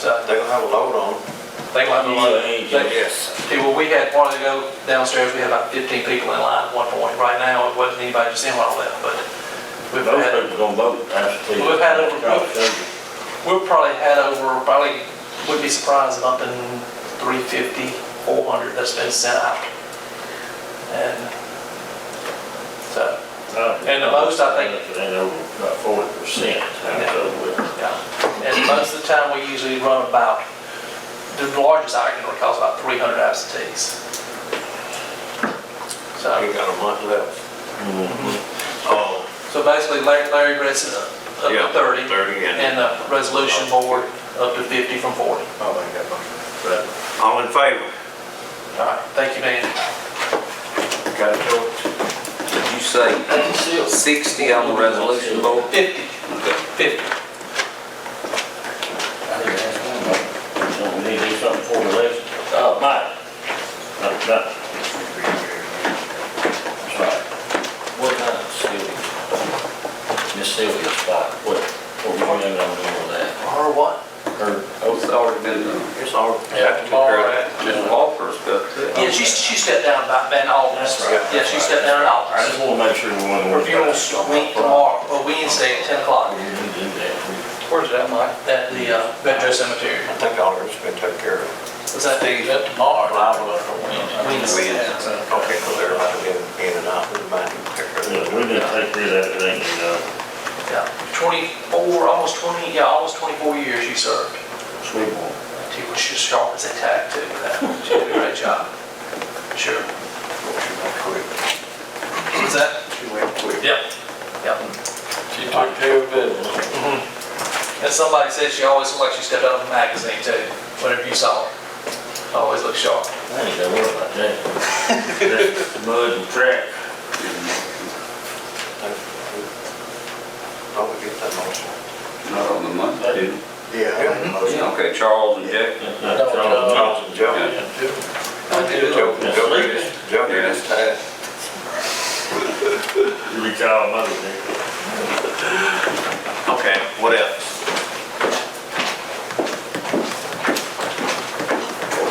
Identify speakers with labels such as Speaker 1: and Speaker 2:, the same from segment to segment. Speaker 1: cut,
Speaker 2: They're gonna have a load on.
Speaker 1: they will have a load.
Speaker 3: Yeah, yeah.
Speaker 1: They- See, well, we had, a while ago downstairs, we had about fifteen people in line at one point. Right now, it wasn't anybody just in while I left, but we've
Speaker 3: Those
Speaker 1: had,
Speaker 3: people gonna vote, that's the.
Speaker 1: We've had over- we've probably had over, probably, wouldn't be surprised if up in 350, 400 hundred that's been sent out. And so, And the most, I think-
Speaker 3: And over about forty percent,
Speaker 1: Yeah.
Speaker 3: that's over with.
Speaker 1: yeah. And most of the time, we usually run about, the largest I can recall is about three hundred absentees. So.
Speaker 2: You got a month left.
Speaker 3: mm-hmm.
Speaker 2: Oh,
Speaker 1: So basically Larry, Larry Gress is up
Speaker 2: Yeah,
Speaker 1: to thirty.
Speaker 2: 30, and-
Speaker 1: And the resolution board up to fifty from forty.
Speaker 3: But
Speaker 2: all in favor?
Speaker 1: All right, thank you, Dan.
Speaker 2: Got it, George?
Speaker 4: Did you say sixty on the resolution board?
Speaker 1: Fifty. Fifty.
Speaker 3: Don't we need to do something for the election. Oh, Mike. That's right. That's right. What kind of Sylvia? Miss Sylvia's spot, what, what we doing on doing that?
Speaker 1: Or what?
Speaker 3: Her,
Speaker 4: It's already been done.
Speaker 2: It's all.
Speaker 3: Yeah.
Speaker 4: Ms. Walker's got that.
Speaker 1: Yeah, she, she stepped down about, in August.
Speaker 3: That's right.
Speaker 1: Yeah, she stepped down in
Speaker 3: I
Speaker 1: August.
Speaker 3: just wanna make sure we're on. the-
Speaker 1: Her funeral's a week tomorrow, or Wednesday at ten o'clock
Speaker 3: We can do that.
Speaker 5: Where's that, Mike?
Speaker 1: at the uh, Metro Cemetery.
Speaker 2: I think all of it's been taken care of.
Speaker 1: Is that
Speaker 5: They
Speaker 1: the?
Speaker 5: got tomorrow.
Speaker 1: Wednesday.
Speaker 2: Okay, so they're about to be in and out, we might need to take care of
Speaker 3: Yeah,
Speaker 2: it.
Speaker 3: we didn't take care of that, but they can, uh,
Speaker 1: Yeah, twenty-four, almost twenty, yeah, almost twenty-four years you served.
Speaker 3: sweep one.
Speaker 1: She was just sharp as a tack too, with that. she did uh, a great job. Sure.
Speaker 2: She went quick.
Speaker 1: What's that?
Speaker 2: She went quick.
Speaker 1: Yep. Yep.
Speaker 5: She took care of business.
Speaker 1: And somebody said she always looked like she stepped out of a magazine too, whenever you saw her. Always looked sharp.
Speaker 3: I ain't gotta worry about that. That's Mud and crack.
Speaker 2: Probably get that motion.
Speaker 4: Not on the month, did it?
Speaker 2: Yeah. Uh,
Speaker 4: Okay, Charles and Jack.
Speaker 3: That's not
Speaker 2: Oh,
Speaker 3: Charles Johnson.
Speaker 2: Joe,
Speaker 4: Yeah.
Speaker 2: Joe, Joe, did his- Joe, did his task.
Speaker 3: You recall Mother Day.
Speaker 2: Okay, what else?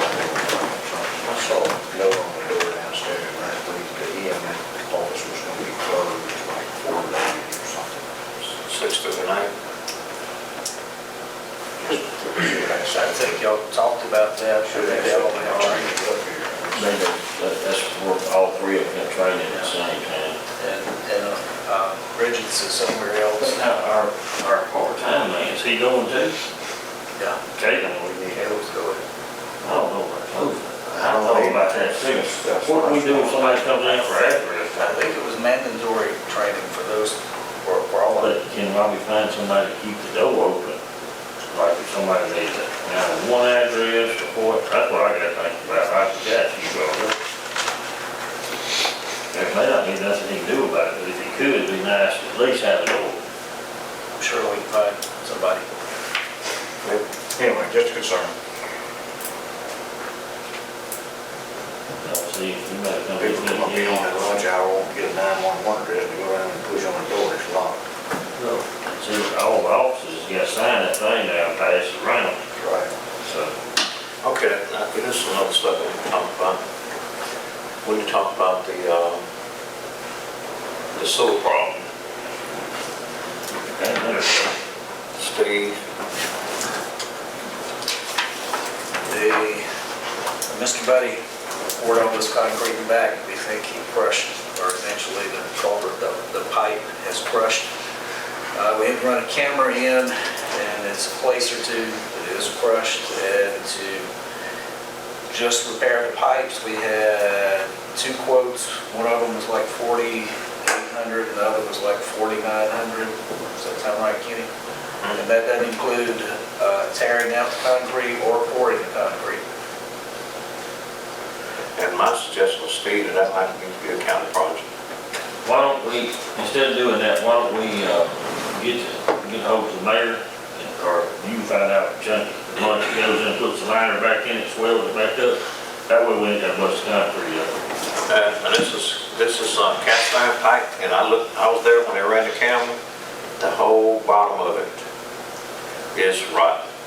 Speaker 6: I saw a note on the door downstairs last week that EMS office was gonna be closed like four days or something.
Speaker 2: Six through the night?
Speaker 6: I think y'all talked about that. Sure, they all have trained up here.
Speaker 3: They go- that- That's for all three of them training at the same time.
Speaker 6: And, and, uh, Bridget's is somewhere else.
Speaker 3: But now our, our part-time man, is he going too?
Speaker 6: Yeah.
Speaker 3: Caitlin, we need,
Speaker 6: Yeah, it was good.
Speaker 3: I don't know about those. I don't know about that too.
Speaker 6: That's
Speaker 3: What do
Speaker 6: what
Speaker 3: we
Speaker 6: I
Speaker 3: do if
Speaker 6: thought.
Speaker 3: somebody comes in for
Speaker 6: I
Speaker 3: after?
Speaker 6: think it was mandatory training for those, for, for all of
Speaker 3: But can Robbie find somebody to keep the door open? Like if somebody needs it, now one address or what, that's what I gotta think about, I forgot you brought it up. There may not be nothing he can do about it, but if he could, it'd be nice to at least have it open.
Speaker 6: I'm sure we can find somebody.
Speaker 7: Anyway, just a concern.
Speaker 3: Now, see, if you might come
Speaker 7: People come up here on that lunch hour, won't get a nine-one-one address, they go around and push on the door, it's locked.
Speaker 3: See, all the officers got signed that thing down, pass it around,
Speaker 7: Right.
Speaker 3: so.
Speaker 2: Okay, now, this is another stuff we can talk about. When you talk about the, um, the sewer problem,
Speaker 3: and there's-
Speaker 2: Steve,
Speaker 6: The, Mr. Buddy poured all this concrete back, we think he crushed, or eventually the culvert, the, the pipe has crushed. Uh, we had to run a camera in, and it's a place or two that is crushed, and to just repair the pipes, we had two quotes, one of them was like forty-eight hundred, and the other was like forty-nine hundred, does that sound right, Kenny? And that doesn't include uh, tearing out the concrete or pouring the concrete.
Speaker 2: and my suggestion was Steve, that that might need to be a county project.
Speaker 3: Why don't we, instead of doing that, why don't we, uh, get, get hold of the mayor, and- or you find out, Chuck, the money that goes in, puts the liner back in, it swells it back up, that way we ain't got much concrete up.
Speaker 2: Uh, and this is, this is uh, cast iron pipe, and I looked, I was there when they ran the camera, the whole bottom of it is rotten.